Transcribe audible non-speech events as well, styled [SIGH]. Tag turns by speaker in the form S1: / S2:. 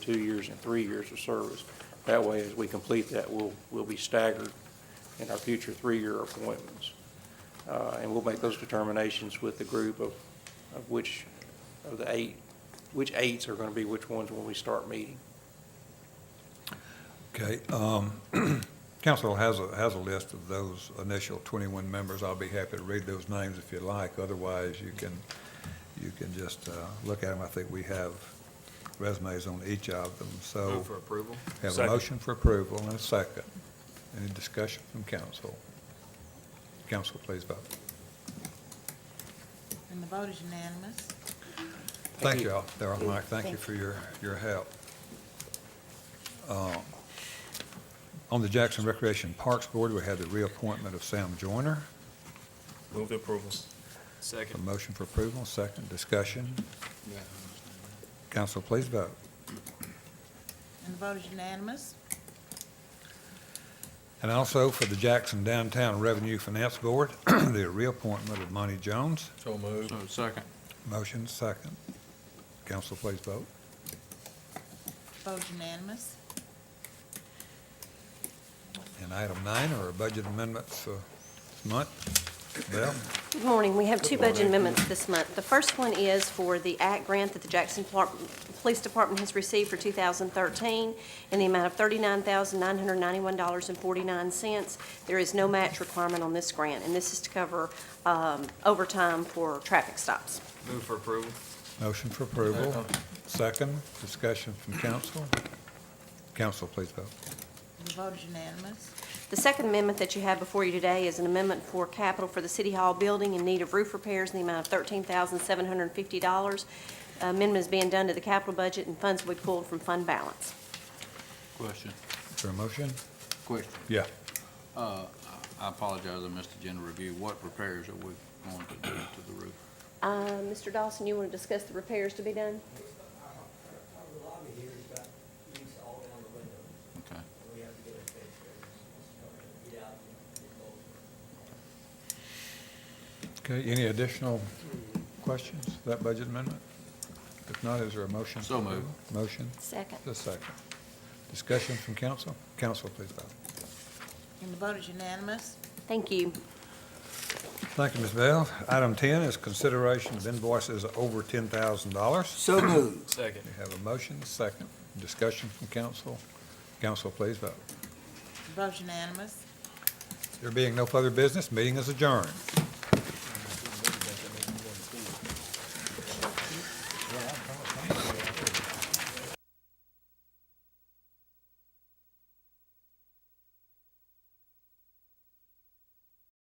S1: two years and three years of service. That way, as we complete that, we'll, we'll be staggered in our future three-year appointments. Uh, And we'll make those determinations with the group of, of which, of the eight, which eights are going to be which ones when we start meeting.
S2: Okay, um, [CLEARS THROAT] council has a, has a list of those initial 21 members. I'll be happy to read those names if you like. Otherwise, you can, you can just uh, look at them. I think we have resumes on each of them, so.
S3: Move for approval?
S2: Oh. Have a
S4: Second.
S2: motion for approval and a second. Any discussion from council? Council, please vote.
S5: And the vote is unanimous.
S2: Thank you all, Darrell, Mike, thank you for your, your help. Um, On the Jackson Recreation Parks Board, we had the reappointment of Sam Joyner.
S4: Move to approval.
S2: A
S3: Second.
S2: motion for approval, second discussion. Council, please vote.
S5: And the vote is unanimous.
S2: And also for the Jackson Downtown Revenue Finance Board, [CLEARS THROAT] the reappointment of Monty Jones.
S3: So moved. Second.
S2: Motion, second. Council, please vote.
S5: Vote is unanimous.
S2: And item nine are budget amendments uh, this month. Bell?
S6: Good morning. We have two budget amendments this month. The first one is for the ACT grant that the Jackson Plar- Police Department has received for 2013 in the amount of $39,991.49. There is no match requirement on this grant, and this is to cover um, overtime for traffic stops.
S3: Move for approval?
S2: Motion for approval. Second, discussion from council. Council, please vote.
S5: And the vote is unanimous.
S6: The second amendment that you have before you today is an amendment for capital for the City Hall building in need of roof repairs in the amount of $13,750. Amendment is being done to the capital budget, and funds will be pulled from fund balance.
S7: Question,
S2: Is there a motion?
S7: question.
S2: Yeah.
S7: Uh, I apologize, I missed the agenda review. What repairs are we going to do to the roof?
S6: Uh, Mr. Dawson, you want to discuss the repairs to be done?
S8: The lobby here has got leaks all down the window,
S7: Okay.
S8: and we have to get it fixed. It's going to get out and get those.
S2: Okay, any additional questions, to that budget amendment? If not, is there a motion?
S7: So
S2: for
S7: moved.
S2: approval? Motion,
S6: Second.
S2: the second. Discussion from council. Council, please vote.
S5: And the vote is unanimous.
S6: Thank you.
S2: Thank you, Ms. Bell. Item 10 is consideration of invoices over $10,000.
S3: So moved. Second.
S2: We have a motion, second. Discussion from council. Council, please vote.
S5: The vote is unanimous.
S2: There being no further business, meeting is adjourned.